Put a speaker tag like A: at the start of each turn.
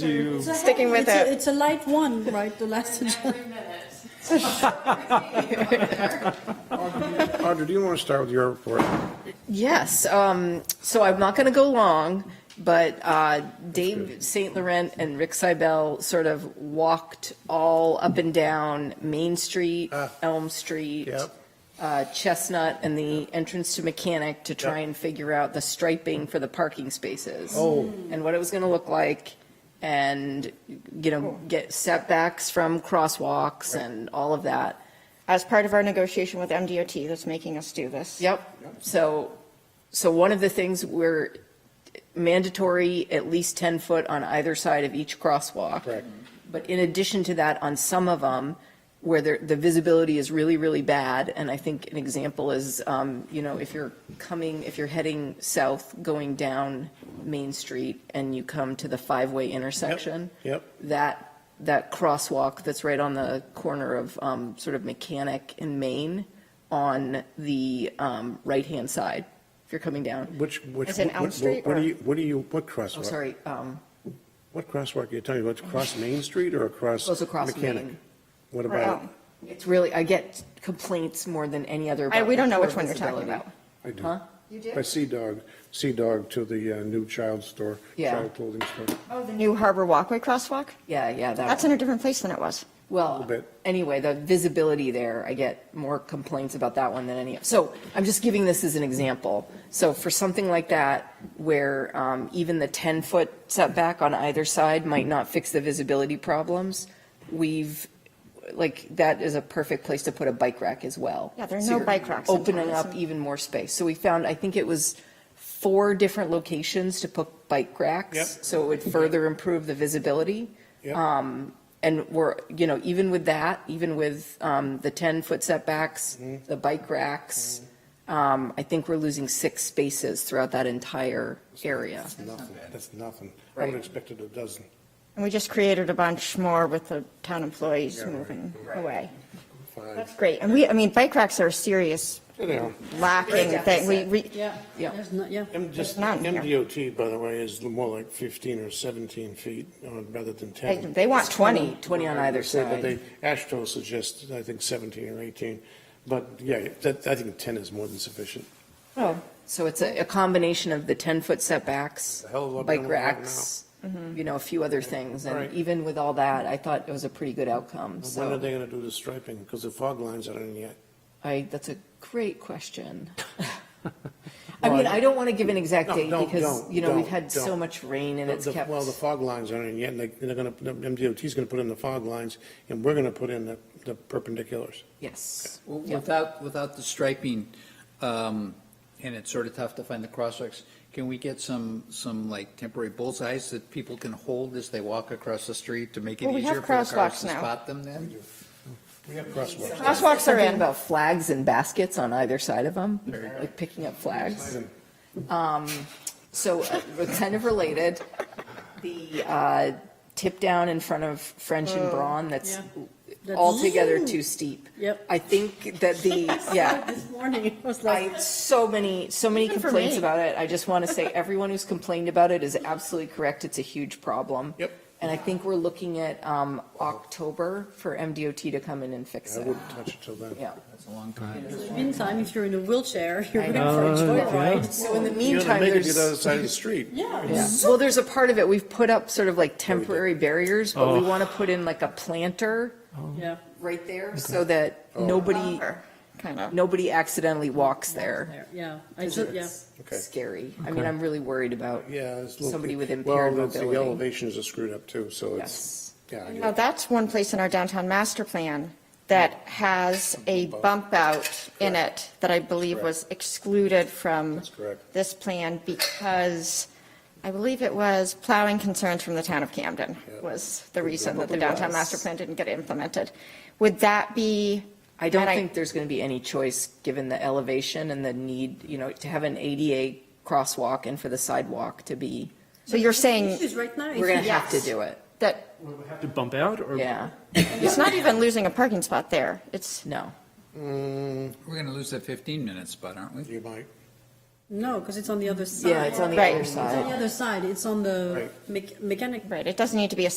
A: you.
B: It's a
C: Sticking
B: heavy-
C: with
B: it's a-
C: it.
B: It's a light one, right, the last agenda.
A: Audra, do you want to start with your report?
C: Yes, um, so I'm not going to go long, but uh, Dave St. Laurent and Rick Seibel sort of walked all up and down Main Street,
A: Ah.
C: Elm Street,
A: Yep.
C: uh, Chestnut, and the entrance to Mechanic to try
A: Yep.
C: and figure out the striping for the parking spaces.
A: Oh.
C: And what it was going to look like, and, you know, get setbacks from crosswalks and all of that.
D: as part of our negotiation with MDOT that's making us do this.
C: Yep. So, so one of the things we're mandatory, at least 10 foot on either side of each crosswalk.
A: Correct.
C: But in addition to that, on some of them, where the, the visibility is really, really bad, and I think an example is, um, you know, if you're coming, if you're heading south, going down Main Street, and you come to the five-way intersection.
A: yep.
C: That, that crosswalk that's right on the corner of, um, sort of Mechanic and Main on the, um, right-hand side, if you're coming down.
A: Which, which.
D: As in Elm
A: what- what-
D: Street,
A: What
D: or-
A: do you, what do you, what crosswalk?
C: Oh, sorry, um,
A: What crosswalk are you talking about? Across Main Street or across?
C: Goes across
A: Mechanic?
C: Main.
A: What
D: Or um,
A: about?
D: Elm.
C: it's really, I get complaints more than any other.
D: I-
C: about
D: we don't know
C: poor
D: which one you're talking
C: visibility.
D: about.
A: I do.
C: Huh?
A: By Sea Dog, Sea Dog to the uh, new child store,
C: Yeah.
A: child clothing store.
D: Oh, the new Harbor Walkway crosswalk?
C: Yeah, yeah, that
D: That's in a different place than it was.
C: Well,
A: little bit.
C: anyway, the visibility there, I get more complaints about that one than any. So I'm just giving this as an example. So for something like that, where um, even the 10-foot setback on either side might not fix the visibility problems, we've, like, that is a perfect place to put a bike rack as well.
D: Yeah, there are
C: So
D: no
C: you're
D: bike racks in
C: Opening
D: town,
C: up
D: so-
C: even more space. So we found, I think it was four different locations to put bike racks.
A: Yep.
C: So it would further improve the visibility.
A: Yep.
C: Um, And we're, you know, even with that, even with um, the 10-foot setbacks,
A: Mm-hmm.
C: the bike racks, um, I think we're losing six spaces throughout that entire area.
A: That's nothing, that's nothing. I would
C: Right.
A: expect it a dozen.
D: And we just created a bunch more with the town employees
A: Yeah, right.
D: moving away.
A: Fine.
D: That's great. And we, I mean, bike racks are a serious
A: Anyhow,
D: lacking thing. We, we,
B: Yeah.
C: Yeah.
B: There's no- yeah.
A: M- just,
D: none here.
A: MDOT, by the way, is more like 15 or 17 feet uh, rather than 10.
D: they want 20.
C: 20 on
A: I
C: either
A: would say that
C: side.
A: they- ASHTO suggests, I think, 17 or 18, but yeah, that, I think 10 is more than sufficient.
C: So it's a a combination of the 10-foot setbacks,
A: The hell of a lot
C: bike
A: better than we have
C: racks, you know, a few other things. And
A: Right.
C: even with all that, I thought it was a pretty good outcome,
A: When are
C: so.
A: they going to do the striping? Because the fog lines aren't in yet.
C: I, that's a great question. I mean, I don't want to give an exact
A: No,
C: date
A: don't-
C: because,
A: don't,
C: you know, we've
A: don't,
C: had so
A: don't.
C: much rain and it's
A: The-
C: kept.
A: Well, the fog lines aren't in yet, and they- they're going to, MDOT's going to put in the fog lines, and we're going to put in the- the perpendiculars.
C: Yes.
E: Well, Without, without the striping, um, and it's sort of tough to find the crosswalks, can we get some, some like temporary bullseyes that people can hold as they walk across the street to make it
D: Well, we have
E: easier for the cars
D: crosswalks
E: to
D: now.
E: spot them then?
A: We have crosswalks.
D: crosswalks are
C: Something
D: in.
C: about flags and baskets on either side of them, like picking up flags. Um, So uh, we're kind of related, the uh, tip down in front of French
D: Oh,
C: and Braun, that's
B: That's-
C: altogether too steep.
B: Yep.
C: I think that the, yeah.
B: This morning, it was
C: I,
B: like,
C: so many, so many
D: Even for
C: complaints
D: me.
C: about it. I just want to say, everyone who's complained about it is absolutely correct. It's a huge problem.
A: Yep.
C: And I think we're looking at um, October for MDOT to come in and fix
A: I
C: it.
A: wouldn't touch it till then.
C: Yeah.
E: That's a long time.
B: in the meantime, if you're in a wheelchair, you're in for a
C: know.
B: joyride.
C: So in the
A: You're going to
C: meantime,
A: make it to the other
C: there's,
A: side of the street.
C: yeah. well, there's a part of it, we've put up sort of like temporary barriers, but we
A: Oh.
C: want to put in like a planter
B: Yeah.
C: right there so that
A: Oh.
C: nobody,
D: kind of.
C: nobody accidentally walks there.
B: There, Yeah, I said, yeah.
A: Okay.
C: Scary. I mean, I'm really worried about
A: Yeah. it's a little-
C: somebody with impaired
A: Well, it's the
C: mobility.
A: elevations are screwed up too, so it's,
C: Yes.
A: yeah. I
D: Now,
A: get it.
D: that's one place in our downtown master plan that has a bump out in it that I believe was excluded from
A: That's correct.
D: this plan because I believe it was plowing concerns from the town of Camden
A: Yeah.
D: was the reason that the
C: Probably
D: downtown
C: was.
D: master plan didn't get implemented. Would that be?
C: I don't
D: and
C: think there's going to be any choice, given the elevation and the need, you know, to have an ADA crosswalk and for the sidewalk to be,
D: So you're
B: The
D: saying
B: issue is right now. is
C: we're going
B: that-
C: to have to
D: Yes.
C: do it.
D: that
F: To bump out or?
C: Yeah,
D: it's not even losing a parking spot there. It's,
C: no.
A: Mm,
E: We're going to lose that 15-minute spot, aren't we?
A: You might.
B: No, because it's on the other side.
C: Yeah, it's on the
D: Right.
C: other
B: It's on the
C: side.
B: other side, it's on the mech- mechanic
D: Right, it doesn't need to be a